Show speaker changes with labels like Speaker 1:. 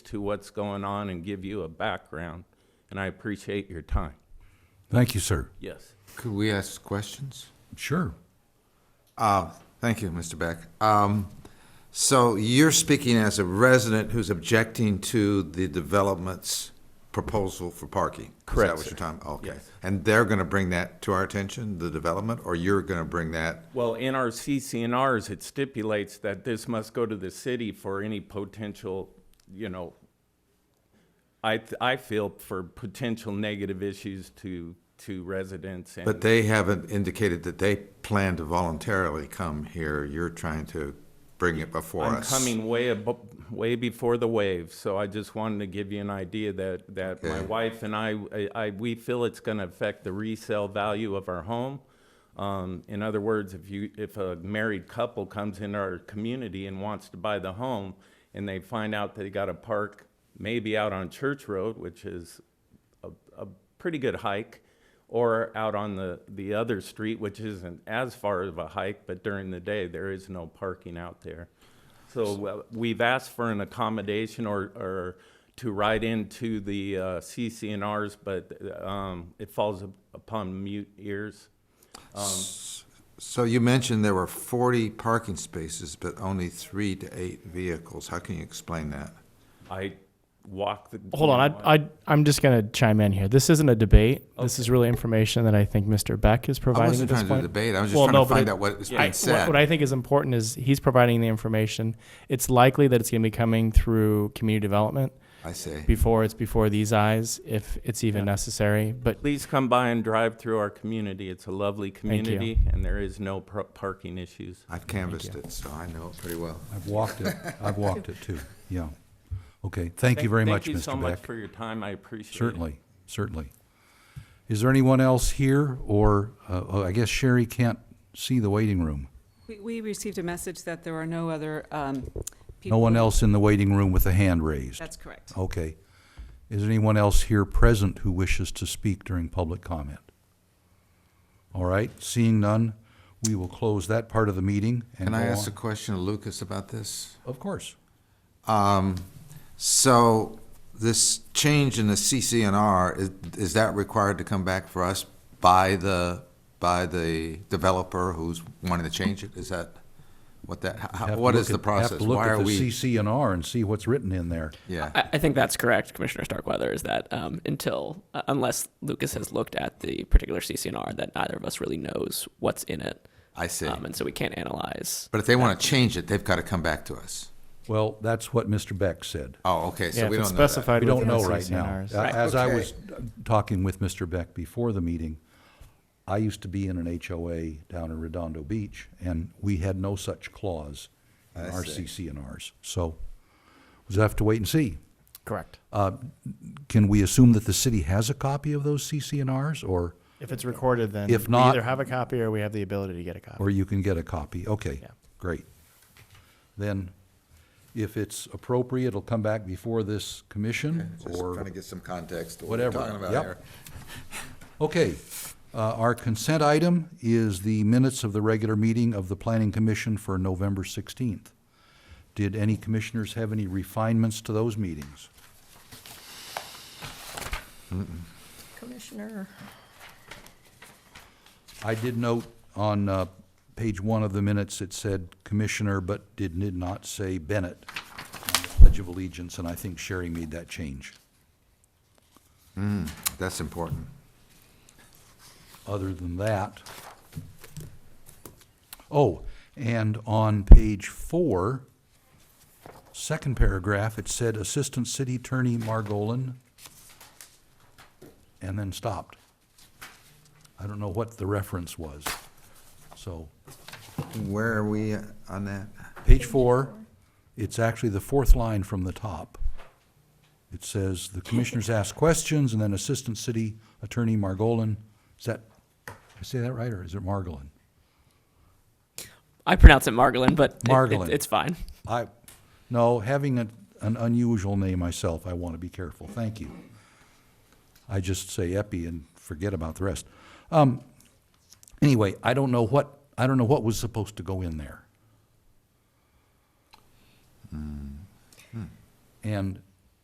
Speaker 1: to what's going on and give you a background, and I appreciate your time.
Speaker 2: Thank you, sir.
Speaker 1: Yes.
Speaker 3: Could we ask questions?
Speaker 2: Sure.
Speaker 3: Uh, Thank you, Mr. Beck. Um, So you're speaking as a resident who's objecting to the development's proposal for parking?
Speaker 1: Correct,
Speaker 3: Is
Speaker 1: sir.
Speaker 3: that what you're talking, okay.
Speaker 1: Yes.
Speaker 3: And they're going to bring that to our attention, the development, or you're going to bring that?
Speaker 1: Well, in our CCNRs, it stipulates that this must go to the city for any potential, you know, I, th- I feel for potential negative issues to, to residents and.
Speaker 3: But they haven't indicated that they plan to voluntarily come here. You're trying to bring it before
Speaker 1: I'm
Speaker 3: us.
Speaker 1: coming way abo way before the wave, so I just wanted to give you an idea that, that my
Speaker 3: Okay.
Speaker 1: wife and I, I- I, we feel it's gonna affect the resale value of our home. Um, in other words, if you, if a married couple comes in our community and wants to buy the home, and they find out they gotta park maybe out on Church Road, which is a, a pretty good hike, or out on the, the other street, which isn't as far of a hike, but during the day, there is no parking out there. So uh, we've asked for an accommodation or, or to ride into the uh, CCNRs, but um, it falls upon mute ears.
Speaker 3: So you mentioned there were 40 parking spaces, but only three to eight vehicles. How can you explain that?
Speaker 1: I walk the.
Speaker 4: Hold on, I, I, I'm just going to chime in here. This isn't a debate. This is really information that I think Mr. Beck is
Speaker 3: I
Speaker 4: providing at
Speaker 3: wasn't
Speaker 4: this
Speaker 3: trying to
Speaker 4: point.
Speaker 3: debate, I was just
Speaker 4: Well,
Speaker 3: trying
Speaker 4: no,
Speaker 3: to
Speaker 4: but
Speaker 3: find
Speaker 4: it-
Speaker 3: out what is
Speaker 4: I-
Speaker 3: being
Speaker 4: what, what
Speaker 3: said.
Speaker 4: I think is important is he's providing the information. It's likely that it's going to be coming through community development
Speaker 3: I see.
Speaker 4: before it's before these eyes, if it's even necessary. But
Speaker 1: Please come by and drive through our community. It's a lovely
Speaker 4: you.
Speaker 1: community, and there is no pro- parking issues.
Speaker 3: I've canvassed it, so I know it pretty well.
Speaker 2: I've walked it. I've walked it too. Yeah. Okay. Thank you very much,
Speaker 1: Thank you so
Speaker 2: Mr.
Speaker 1: much
Speaker 2: Beck.
Speaker 1: for your time. I appreciate it.
Speaker 2: Certainly, certainly. Is there anyone else here or, uh, oh, I guess Sherry can't see the waiting room.
Speaker 5: We- We received a message that there are no other um, people.
Speaker 2: No one else in the waiting room with a hand raised.
Speaker 5: That's correct.
Speaker 2: Okay. Is there anyone else here present who wishes to speak during public comment? All right, seeing none, we will close that part of the meeting and
Speaker 3: Can I
Speaker 2: go
Speaker 3: ask a
Speaker 2: on-
Speaker 3: question of Lucas about this?
Speaker 2: Of course.
Speaker 3: Um, So this change in the CCNR, is- is that required to come back for us by the, by the developer who's wanting to change it? Is that what that, how-
Speaker 2: Have to
Speaker 3: what
Speaker 2: look
Speaker 3: is the
Speaker 2: at-
Speaker 3: process?
Speaker 2: Have to look
Speaker 3: Why
Speaker 2: at
Speaker 3: are
Speaker 2: the
Speaker 3: we-
Speaker 2: CC and R and see what's written in there.
Speaker 3: Yeah.
Speaker 6: I, I think that's correct, Commissioner Starkweather, is that um, until, uh, unless Lucas has looked at the particular CCNR, that neither of us really knows what's in it.
Speaker 3: I see.
Speaker 6: Um, and so we can't analyze.
Speaker 3: But if they want to change it, they've got to come back to us.
Speaker 2: Well, that's what Mr. Beck said.
Speaker 3: Oh, okay,
Speaker 4: yeah,
Speaker 3: so we
Speaker 4: if it's
Speaker 3: don't know that.
Speaker 4: specified
Speaker 2: We don't
Speaker 4: within
Speaker 2: know
Speaker 4: the
Speaker 2: right now.
Speaker 4: CCNRs.
Speaker 2: Uh, As I
Speaker 3: Okay.
Speaker 2: was uh, talking with Mr. Beck before the meeting, I used to be in an HOA down in Redondo Beach, and we had no such clause in
Speaker 3: I
Speaker 2: our
Speaker 3: see.
Speaker 2: CCNRs. So we'll have to wait and see.
Speaker 4: Correct.
Speaker 2: Uh, Can we assume that the city has a copy of those CCNRs, or,
Speaker 4: If it's recorded, then
Speaker 2: If
Speaker 4: we
Speaker 2: not-
Speaker 4: either have a copy or we have the ability to get a copy.
Speaker 2: or you can get a copy? Okay,
Speaker 4: Yeah.
Speaker 2: great. Then, if it's appropriate, it'll come back before this commission,
Speaker 3: Just
Speaker 2: or?
Speaker 3: trying to get some context to what we're
Speaker 2: whatever.
Speaker 3: talking about
Speaker 2: Yep.
Speaker 3: here.
Speaker 2: Okay, uh, our consent item is the minutes of the regular meeting of the Planning Commission for November 16th. Did any commissioners have any refinements to those meetings?
Speaker 7: Commissioner,
Speaker 2: I did note on uh, page one of the minutes, it said Commissioner, but did did not say Bennett, on the Pledge of Allegiance, and I think Sherry made that change.
Speaker 3: That's important.
Speaker 2: other than that. Oh, and on page four, second paragraph, it said Assistant City Attorney Margolin, and then stopped. I don't know what the reference was. So,
Speaker 3: Where are we on that?
Speaker 2: page four, it's actually the fourth line from the top. It says, "The commissioners ask questions," and then Assistant City Attorney Margolin. Is that, did I say that right, or is it Margolin?
Speaker 6: I pronounce it Margolin, but it- it-
Speaker 2: Margolin.
Speaker 6: it's fine.
Speaker 2: I, no, having a, an unusual name myself, I want to be careful. Thank you. I just say Epi and forget about the rest. Um, anyway, I don't know what, I don't know what was supposed to go in there. And